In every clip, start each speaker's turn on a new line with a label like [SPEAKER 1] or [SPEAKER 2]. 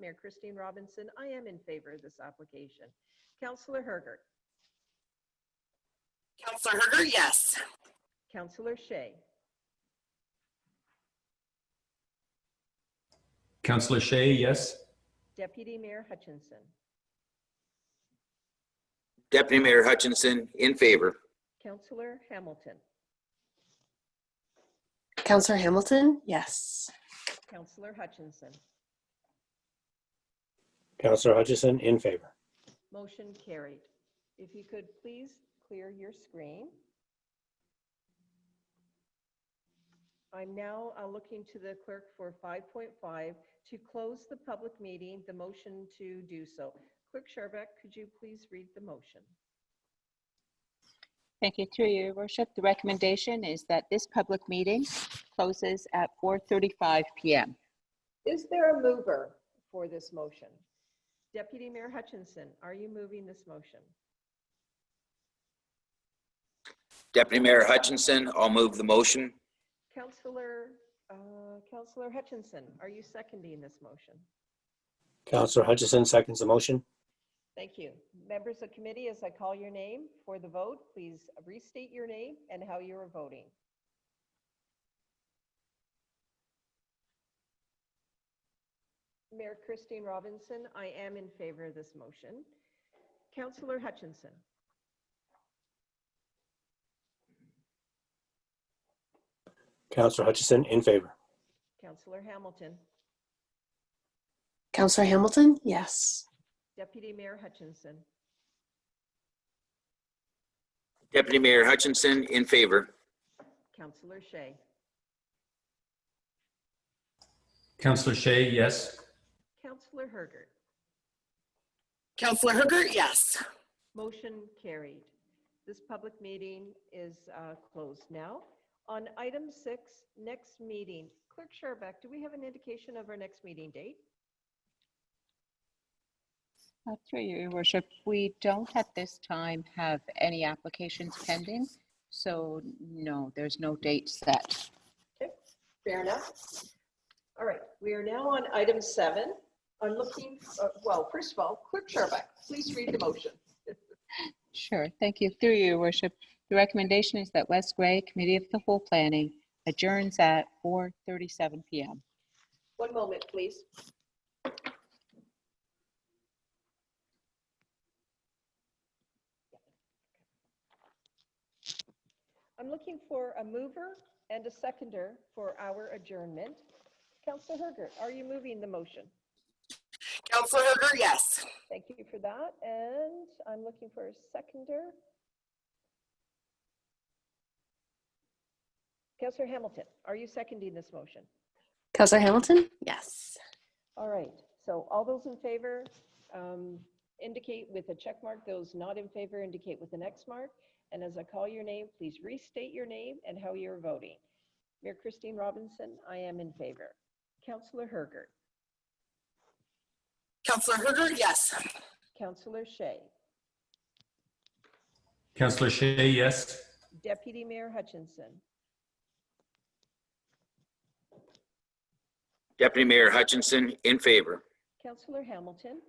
[SPEAKER 1] Mayor Christine Robinson, I am in favor of this application. Counselor Herger,
[SPEAKER 2] Counselor Herger, yes.
[SPEAKER 1] Counselor Shea,
[SPEAKER 3] Counselor Shea, yes.
[SPEAKER 1] Deputy Mayor Hutchinson,
[SPEAKER 4] Deputy Mayor Hutchinson, in favor.
[SPEAKER 1] Counselor Hamilton,
[SPEAKER 2] Counselor Hamilton, yes.
[SPEAKER 1] Counselor Hutchinson.
[SPEAKER 5] Counselor Hutchison, in favor.
[SPEAKER 1] Motion carried. If you could please clear your screen. I'm now uh, looking to the clerk for 5.5 to close the public meeting, the motion to do so. Clerk Sharbeck, could you please read the motion?
[SPEAKER 6] Thank you, through your worship. The recommendation is that this public meeting closes at 4:35 PM.
[SPEAKER 1] Is there a mover for this motion? Deputy Mayor Hutchinson, are you moving this motion?
[SPEAKER 4] Deputy Mayor Hutchinson, I'll move the motion.
[SPEAKER 1] Counselor, uh, Counselor Hutchinson, are you seconding this motion?
[SPEAKER 5] Counselor Hutchison seconds the motion.
[SPEAKER 1] Thank you. Members of committee, as I call your name for the vote, please restate your name and how you are voting. Mayor Christine Robinson, I am in favor of this motion. Councillor Hutchinson,
[SPEAKER 5] Counselor Hutchison, in favor.
[SPEAKER 1] Councillor Hamilton,
[SPEAKER 2] Counselor Hamilton, yes.
[SPEAKER 1] Deputy Mayor Hutchinson,
[SPEAKER 4] Deputy Mayor Hutchinson, in favor.
[SPEAKER 1] Councillor Shea,
[SPEAKER 3] Counselor Shea, yes.
[SPEAKER 1] Councillor Herger.
[SPEAKER 2] Counselor Herger, yes.
[SPEAKER 1] Motion carried. This public meeting is uh, closed now. On item six, next meeting. Clerk Sherbeck, do we have an indication of our next meeting date?
[SPEAKER 6] Uh, Through your worship, we don't at this time have any applications pending, so no, there's no date set.
[SPEAKER 1] Fair enough. All right, we are now on item seven. I'm looking, uh, well, first of all, Clerk Sherbeck, please read the motion.
[SPEAKER 6] Sure, thank you. Through you, Your worship. The recommendation is that West Gray Committee of the Whole Planning adjourns at 4:37 PM.
[SPEAKER 1] One moment, please. I'm looking for a mover and a seconder for our adjournment. Counselor Herger, are you moving the motion?
[SPEAKER 2] Counselor Herger, yes.
[SPEAKER 1] Thank you for that, and I'm looking for a seconder. Counselor Hamilton, are you seconding this motion?
[SPEAKER 2] Counselor Hamilton, yes.
[SPEAKER 1] All right, so all those in favor um, indicate with a check mark, those not in favor indicate with an X mark. And as I call your name, please restate your name and how you're voting. Mayor Christine Robinson, I am in favor. Councillor Herger,
[SPEAKER 2] Counselor Herger, yes.
[SPEAKER 1] Councillor Shea,
[SPEAKER 3] Counselor Shea, yes.
[SPEAKER 1] Deputy Mayor Hutchinson,
[SPEAKER 4] Deputy Mayor Hutchinson, in favor.
[SPEAKER 1] Councillor Hamilton,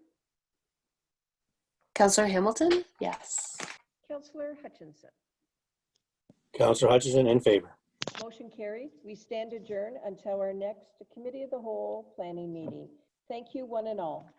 [SPEAKER 2] Counselor Hamilton, yes.
[SPEAKER 1] Councillor Hutchinson.
[SPEAKER 5] Counselor Hutchison, in favor.
[SPEAKER 1] Motion carried. We stand adjourned until our next Committee of the Whole Planning meeting. Thank you, one and all.